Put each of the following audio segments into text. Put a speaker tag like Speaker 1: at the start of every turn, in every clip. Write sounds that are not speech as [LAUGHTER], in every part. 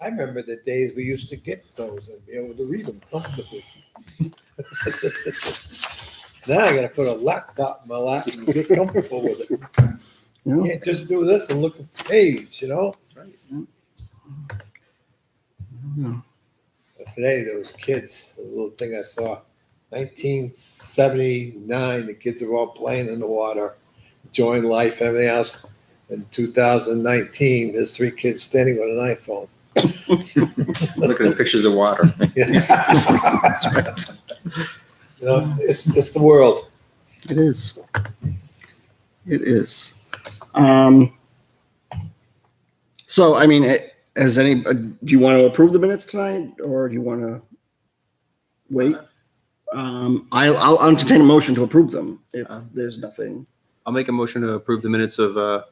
Speaker 1: I remember the days we used to get those and be able to read them comfortably. [LAUGHS] Now I gotta put a laptop in my lap and get comfortable with it.
Speaker 2: Yeah.
Speaker 1: Can't just do this and look at the page, you know? But today, those kids, the little thing I saw, nineteen seventy-nine, the kids are all playing in the water, enjoying life, everything else. In two thousand nineteen, there's three kids standing with an iPhone.
Speaker 3: Looking at pictures of water.
Speaker 1: [LAUGHS] You know, it's, it's the world.
Speaker 2: It is. It is. Um, so, I mean, it, has any, uh, do you want to approve the minutes tonight or do you want to wait? Um, I'll, I'll entertain a motion to approve them if
Speaker 4: Uh.
Speaker 3: Um.
Speaker 2: there's nothing.
Speaker 3: I'll make a motion to approve the minutes of uh,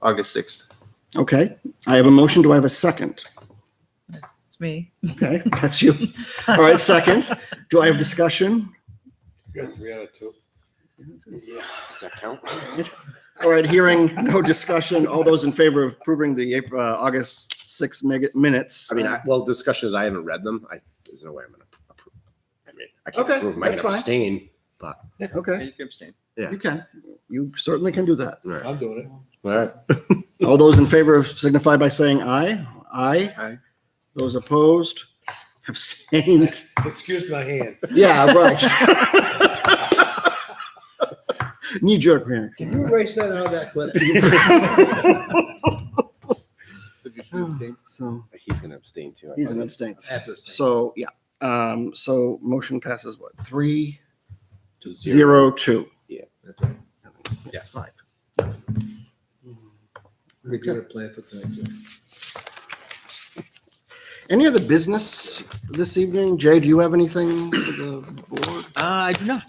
Speaker 3: August 6th.
Speaker 2: Okay. I have a motion. Do I have a second?
Speaker 5: That's it's me.
Speaker 2: Okay. [LAUGHS] That's you. All right. Second. Do I have discussion?
Speaker 1: You're three out of two.
Speaker 2: All right, hearing no discussion, all those in favor of approving the April, uh, August 6 mega- minutes?
Speaker 4: [LAUGHS] I mean, I, well, discussion is I haven't read them. I, there's no way I'm gonna approve. I mean, I can't
Speaker 2: Okay,
Speaker 4: approve. 'em. I
Speaker 2: that's
Speaker 4: can
Speaker 2: fine.
Speaker 4: abstain.
Speaker 2: Okay,
Speaker 3: you can abstain.
Speaker 2: you can. You certainly can do that.
Speaker 4: All [LAUGHS] right.
Speaker 1: I'm doing it.
Speaker 4: All right.
Speaker 2: All those in favor of signify by saying aye. Aye.
Speaker 3: Aye.
Speaker 2: Those opposed, [LAUGHS] abstained.
Speaker 1: Excuse my hand.
Speaker 2: Yeah, right. Knee jerk reaction.
Speaker 1: Can you erase that out of that
Speaker 2: [LAUGHS]
Speaker 1: clip?
Speaker 3: Did you
Speaker 2: So
Speaker 4: He's gonna abstain too. I
Speaker 2: he's an
Speaker 4: believe.
Speaker 2: abstain.
Speaker 1: After.
Speaker 2: So, yeah. Um, so motion passes what? Three, zero, two,
Speaker 3: Yes.
Speaker 2: five.
Speaker 1: We do a plan for tonight.
Speaker 2: Any other business this evening? Jay, do you have anything for the board?
Speaker 5: Uh, I do not.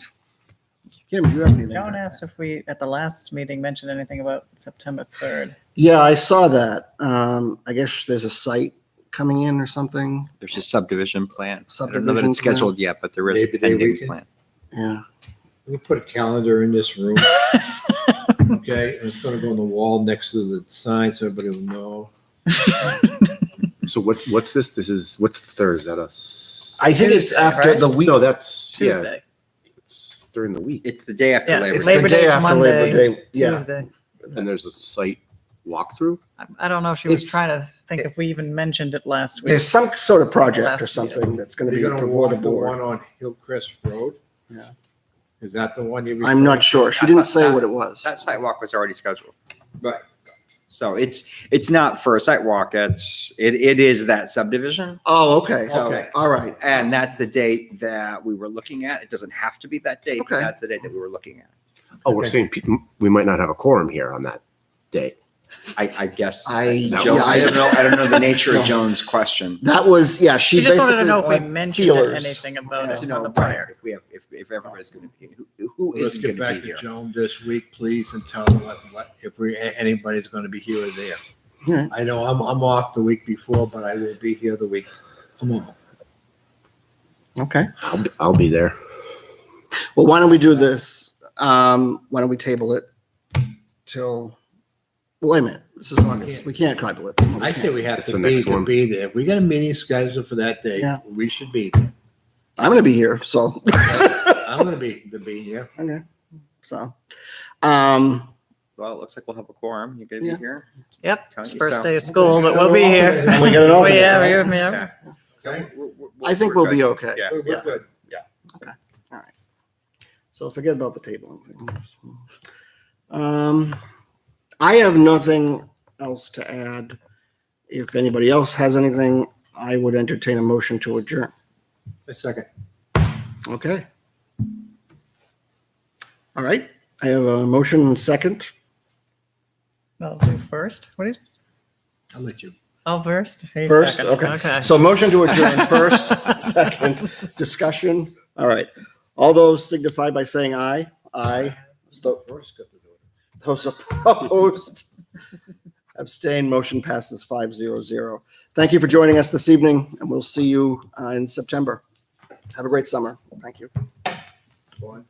Speaker 2: Kim, do you have anything?
Speaker 5: Joan asked if we, at the last meeting, mentioned anything about September 3rd.
Speaker 2: Yeah, I saw that. Um, I guess there's a site coming in or something.
Speaker 3: There's a subdivision plan. I don't know that
Speaker 2: Subdivision
Speaker 3: it's scheduled yet, but there is a
Speaker 1: Maybe they
Speaker 3: pending
Speaker 1: weekend.
Speaker 3: plan.
Speaker 2: Yeah.
Speaker 1: We put a calendar in this
Speaker 2: [LAUGHS]
Speaker 1: room. Okay, and it's gonna go on the wall next to the sign, so everybody will know.
Speaker 4: So what's what's this? This is what's the third? Is that us?
Speaker 2: I think it's after
Speaker 5: right?
Speaker 2: the week.
Speaker 4: No, that's yeah.
Speaker 5: Tuesday.
Speaker 4: It's during the week,
Speaker 3: It's the day after
Speaker 5: Yeah,
Speaker 3: Labor
Speaker 2: It's
Speaker 3: Day.
Speaker 2: the
Speaker 5: Labor
Speaker 2: day
Speaker 5: Day's
Speaker 2: after
Speaker 5: Monday.
Speaker 2: Labor Day. Yeah.
Speaker 5: Tuesday.
Speaker 4: and there's a site walkthrough.
Speaker 5: I- I don't know if she was
Speaker 2: It's-
Speaker 5: trying to think if we even mentioned it last week.
Speaker 2: There's some sort of project
Speaker 5: Last
Speaker 2: or
Speaker 5: week.
Speaker 2: something that's going to be
Speaker 1: You're gonna
Speaker 2: before the
Speaker 1: walk the
Speaker 2: board.
Speaker 1: one on Hillcrest Road?
Speaker 2: Yeah.
Speaker 1: Is that the one you?
Speaker 2: I'm not sure. She didn't say what it was.
Speaker 3: That sidewalk was already scheduled.
Speaker 1: Right.
Speaker 3: So it's, it's not for a sidewalk. It's, it, it is that subdivision.
Speaker 2: Oh, okay.
Speaker 3: So-
Speaker 2: Okay. All right.
Speaker 3: And that's the date that we were looking at. It doesn't have to be that date. but
Speaker 2: Okay.
Speaker 3: That's the date that we were looking at.
Speaker 4: Oh, we're
Speaker 1: Okay.
Speaker 4: saying pe- we might not have a quorum here on that day.
Speaker 3: I, I guess.
Speaker 2: I- yeah,
Speaker 3: Joan- I
Speaker 2: I-
Speaker 3: don't know, I don't know the nature
Speaker 2: No.
Speaker 3: of Joan's question.
Speaker 2: That was, yeah, she
Speaker 5: She just wanted to
Speaker 2: basically
Speaker 5: know if we
Speaker 2: wanted
Speaker 5: mentioned
Speaker 2: feelers.
Speaker 5: anything about
Speaker 3: To
Speaker 5: it
Speaker 3: know
Speaker 5: on the
Speaker 3: right,
Speaker 5: prior.
Speaker 3: if we have, if, if everybody's going to be, who, who
Speaker 1: Let's
Speaker 3: isn't
Speaker 1: get
Speaker 3: going to
Speaker 1: back
Speaker 3: be
Speaker 1: to
Speaker 3: here?
Speaker 1: Joan this week, please, and tell her what, what, if we, anybody's gonna be here or
Speaker 2: All
Speaker 1: there.
Speaker 2: right.
Speaker 1: I know I'm, I'm off the week before, but I will be here the week tomorrow.
Speaker 2: Okay.
Speaker 4: I'll be, I'll be there.
Speaker 2: Well, why don't we do this? Um, why don't we table it till, well, wait a minute. This is August. We can't table it.
Speaker 1: I say we have
Speaker 4: It's
Speaker 1: to
Speaker 4: the
Speaker 1: be,
Speaker 4: next
Speaker 1: to
Speaker 4: one.
Speaker 1: be there. We got a meeting scheduled for that day.
Speaker 2: Yeah.
Speaker 1: We should be there.
Speaker 2: I'm going to be here, so. [LAUGHS]
Speaker 1: I'm gonna be, to be here.
Speaker 2: Okay. So, um,
Speaker 3: Well, it looks like we'll have a quorum. You're going to
Speaker 2: Yeah.
Speaker 3: be here.
Speaker 5: Yep,
Speaker 3: Count
Speaker 5: it's first
Speaker 3: yourself.
Speaker 5: day of school, but we'll be
Speaker 2: [LAUGHS]
Speaker 5: here.
Speaker 2: we got an
Speaker 5: [LAUGHS] Oh,
Speaker 2: alternate,
Speaker 5: yeah,
Speaker 2: right?
Speaker 5: yeah, yeah.
Speaker 3: Yeah. So
Speaker 1: Okay.
Speaker 3: we're- we're- we're-
Speaker 2: I think
Speaker 3: we're
Speaker 2: we'll be
Speaker 3: good.
Speaker 2: okay.
Speaker 3: Yeah.
Speaker 1: We're-
Speaker 2: Yeah.
Speaker 1: we're good.
Speaker 2: So forget about the table. Um, I have nothing else to add. If anybody else has anything, I would entertain a motion to adjourn.
Speaker 1: A second.
Speaker 2: Okay. All right. I have a motion and second.
Speaker 5: I'll do first. What did,
Speaker 1: I'll let you.
Speaker 5: I'll first? He's
Speaker 2: First,
Speaker 5: second.
Speaker 2: okay.
Speaker 5: Okay.
Speaker 2: So motion to adjourn first, second, discussion. All right. All those signify by saying aye. Aye. So
Speaker 1: First, got to do it.
Speaker 2: Those opposed? Abstain. Motion passes five zero zero. Thank you for joining us this evening, and we'll see you uh, in September. Have a great summer. Thank you.
Speaker 1: One.